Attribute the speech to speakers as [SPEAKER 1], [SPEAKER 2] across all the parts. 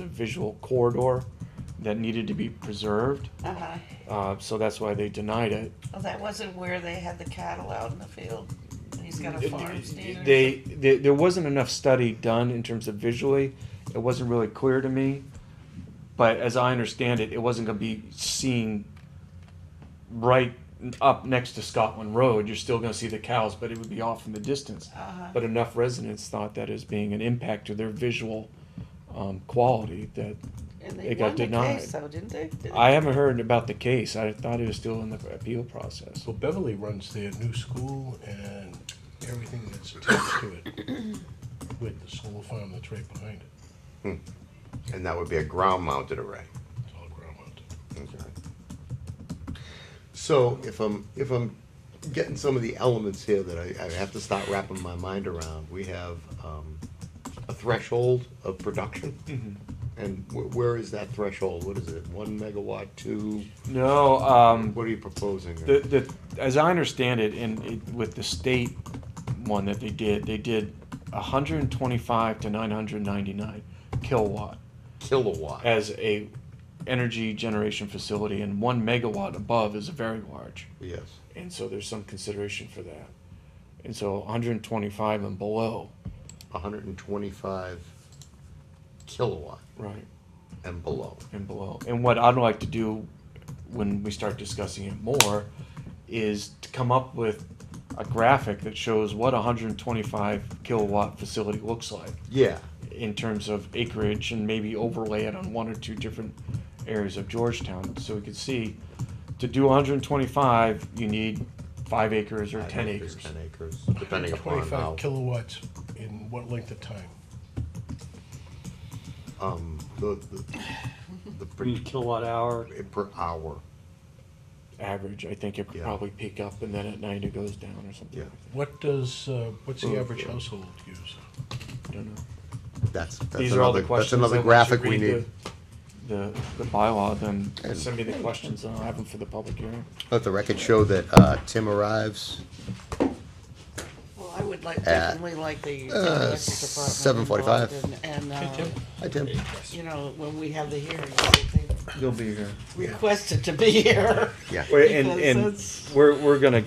[SPEAKER 1] a visual corridor that needed to be preserved,
[SPEAKER 2] Uh-huh.
[SPEAKER 1] uh, so that's why they denied it.
[SPEAKER 2] Well, that wasn't where they had the cattle out in the field. And he's got a farm stand. or
[SPEAKER 1] They, they, there wasn't enough study done in terms of visually, it wasn't really clear to me. But as I understand it, it wasn't gonna be seen right up next to Scotland Road, you're still gonna see the cows, but it would be off in the distance.
[SPEAKER 2] Uh-huh.
[SPEAKER 1] But enough residents thought that as being an impact to their visual, um, quality that
[SPEAKER 2] something. And they
[SPEAKER 1] it got
[SPEAKER 2] won the
[SPEAKER 1] denied.
[SPEAKER 2] case, though, didn't they? Did-
[SPEAKER 1] I haven't heard about the case. I thought it was still in the appeal process.
[SPEAKER 3] So Beverly runs their new school and everything that's attached to it with the solar farm that's right behind it.
[SPEAKER 4] And that would be a ground mounted array.
[SPEAKER 3] It's all ground mounted.
[SPEAKER 4] So if I'm, if I'm getting some of the elements here that I, I have to start wrapping my mind around, we have, um, a threshold of production.
[SPEAKER 1] Mm-hmm.
[SPEAKER 4] And wh- where is that threshold? What is it? One megawatt, two?
[SPEAKER 1] No, um,
[SPEAKER 4] What are you proposing?
[SPEAKER 1] the, the, as I understand it, in, it, with the state one that they did, they did hundred and twenty-five to nine hundred ninety-nine kilowatt
[SPEAKER 4] Kilowatt.
[SPEAKER 1] as a energy generation facility, and one megawatt above is very large.
[SPEAKER 4] Yes.
[SPEAKER 1] And so there's some consideration for that. And so hundred and twenty-five and below,
[SPEAKER 4] hundred and twenty-five kilowatt
[SPEAKER 1] right?
[SPEAKER 4] and below.
[SPEAKER 1] and below. And what I'd like to do when we start discussing it more is to come up with a graphic that shows what a 125 kilowatt facility looks like
[SPEAKER 4] Yeah,
[SPEAKER 1] in terms of acreage and maybe overlay it on one or two different areas of Georgetown so we could see to do 125 you need 5 acres or
[SPEAKER 4] Five
[SPEAKER 1] 10
[SPEAKER 4] acres,
[SPEAKER 1] acres.
[SPEAKER 4] Ten acres, depending upon
[SPEAKER 3] 25
[SPEAKER 4] how,
[SPEAKER 3] kilowatts in what length of time?
[SPEAKER 4] um, the, the, the per,
[SPEAKER 5] kilowatt hour.
[SPEAKER 4] per hour.
[SPEAKER 1] average I think it could
[SPEAKER 4] Yeah.
[SPEAKER 1] probably peak up and then at night it goes down or something.
[SPEAKER 4] Yeah.
[SPEAKER 3] What does, uh, what's the
[SPEAKER 4] Well,
[SPEAKER 3] average
[SPEAKER 4] yeah.
[SPEAKER 3] household use?
[SPEAKER 1] I don't know.
[SPEAKER 4] That's, that's
[SPEAKER 1] These are all
[SPEAKER 4] another,
[SPEAKER 1] the
[SPEAKER 4] that's
[SPEAKER 1] questions.
[SPEAKER 4] another
[SPEAKER 1] that once you
[SPEAKER 4] graphic we
[SPEAKER 1] read
[SPEAKER 4] need.
[SPEAKER 1] The, the the bylaw, then
[SPEAKER 4] And-
[SPEAKER 1] send me the questions and I'll have them for the public hearing.
[SPEAKER 4] Let the record show that, uh, Tim arrives,
[SPEAKER 2] Well, I would like,
[SPEAKER 4] At,
[SPEAKER 2] definitely like the. uh,
[SPEAKER 4] uh,
[SPEAKER 2] electric department
[SPEAKER 4] 7:45.
[SPEAKER 2] involved And, and, uh,
[SPEAKER 4] hi, Tim.
[SPEAKER 2] you know, when we have the hearing, they
[SPEAKER 1] You'll be here.
[SPEAKER 2] requested to be here.
[SPEAKER 4] Yeah,
[SPEAKER 1] And,
[SPEAKER 2] Because
[SPEAKER 1] and
[SPEAKER 2] that's-
[SPEAKER 1] we're, we're gonna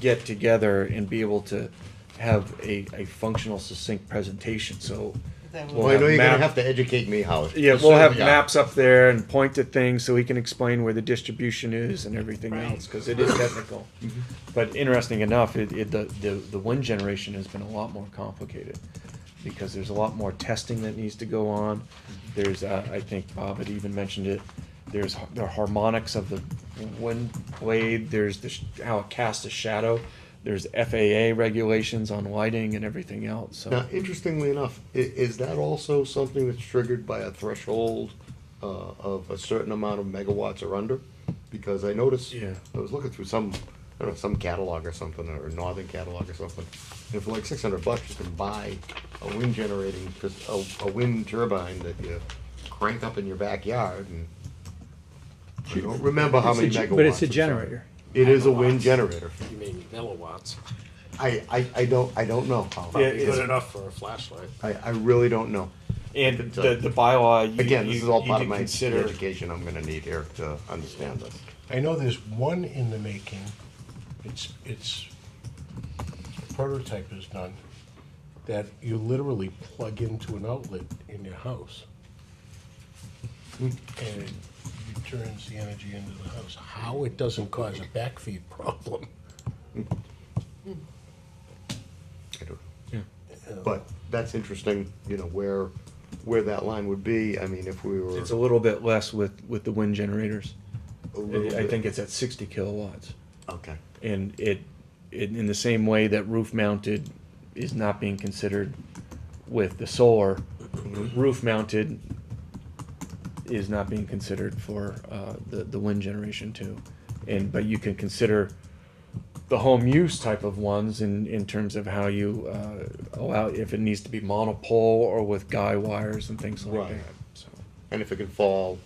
[SPEAKER 1] get together and be able to have a, a functional succinct presentation, so.
[SPEAKER 2] That
[SPEAKER 1] we'll
[SPEAKER 2] would-
[SPEAKER 4] well, I know you're gonna
[SPEAKER 1] map-
[SPEAKER 4] have to educate me how. it-
[SPEAKER 1] Yeah, we'll have
[SPEAKER 4] Yeah.
[SPEAKER 1] maps up there and point to things so we can explain where the distribution is and everything
[SPEAKER 2] Right.
[SPEAKER 1] else, cause it is technical.
[SPEAKER 4] Mm-hmm.
[SPEAKER 1] But interesting enough, it, it, the, the, the wind generation has been a lot more complicated. Because there's a lot more testing that needs to go on.
[SPEAKER 4] Mm-hmm.
[SPEAKER 1] There's, uh, I think Bob had even mentioned it, there's har- the harmonics of the wind blade, there's the, sh- how it casts a shadow. There's FAA regulations on lighting and everything else, so.
[SPEAKER 4] Now, interestingly enough, i- is that also something that's triggered by a threshold, uh, of a certain amount of megawatts or under? Because I noticed,
[SPEAKER 1] Yeah.
[SPEAKER 4] I was looking through some, I don't know, some catalog or something, or northern catalog or something, and for like six hundred bucks, you can buy a wind generating, cause a, a wind turbine that you crank up in your backyard and I don't remember how many
[SPEAKER 5] It's a
[SPEAKER 4] megawatts.
[SPEAKER 5] ge- But it's a
[SPEAKER 4] or something.
[SPEAKER 5] generator.
[SPEAKER 4] It is a wind generator.
[SPEAKER 6] You mean milliwatts?
[SPEAKER 4] I, I, I don't, I don't know how.
[SPEAKER 1] Yeah,
[SPEAKER 6] Good enough for a flashlight.
[SPEAKER 4] I, I really don't know.
[SPEAKER 1] And the, the bylaw, you,
[SPEAKER 4] Again, this is all
[SPEAKER 1] you
[SPEAKER 4] part
[SPEAKER 1] need
[SPEAKER 4] of
[SPEAKER 1] to
[SPEAKER 4] my
[SPEAKER 1] consider.
[SPEAKER 4] education I'm gonna need here to understand this.
[SPEAKER 3] I know there's one in the making. It's, it's, prototype is done, that you literally plug into an outlet in your house. And it returns the energy into the house. How it doesn't cause a backfeed problem.
[SPEAKER 4] I don't know. But that's interesting, you know, where, where that line would be, I mean, if we were.
[SPEAKER 1] It's a little bit less with, with the wind generators.
[SPEAKER 4] a little
[SPEAKER 1] I
[SPEAKER 4] bit-
[SPEAKER 1] think it's at sixty kilowatts.
[SPEAKER 4] Okay,
[SPEAKER 1] And it, it, in the same way that roof mounted is not being considered with the solar, roof mounted is not being considered for, uh, the, the wind generation too. And, but you can consider the home use type of ones in, in terms of how you, uh, allow, if it needs to be monopole or with guy wires and things like
[SPEAKER 4] Right.
[SPEAKER 1] that, so.
[SPEAKER 4] and if it can fall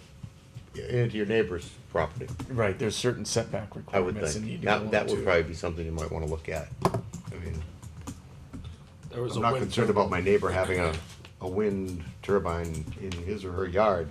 [SPEAKER 4] into your neighbor's property,
[SPEAKER 1] Right, there's certain setback
[SPEAKER 4] I would
[SPEAKER 1] requirements that need
[SPEAKER 4] think,
[SPEAKER 1] to
[SPEAKER 4] that,
[SPEAKER 1] go
[SPEAKER 4] that would
[SPEAKER 1] into it.
[SPEAKER 4] probably be something you might wanna look at. I mean,
[SPEAKER 6] There was
[SPEAKER 4] I'm
[SPEAKER 6] a
[SPEAKER 4] not
[SPEAKER 6] wind
[SPEAKER 4] concerned
[SPEAKER 6] tur-
[SPEAKER 4] about my neighbor having a a wind turbine in his or her yard,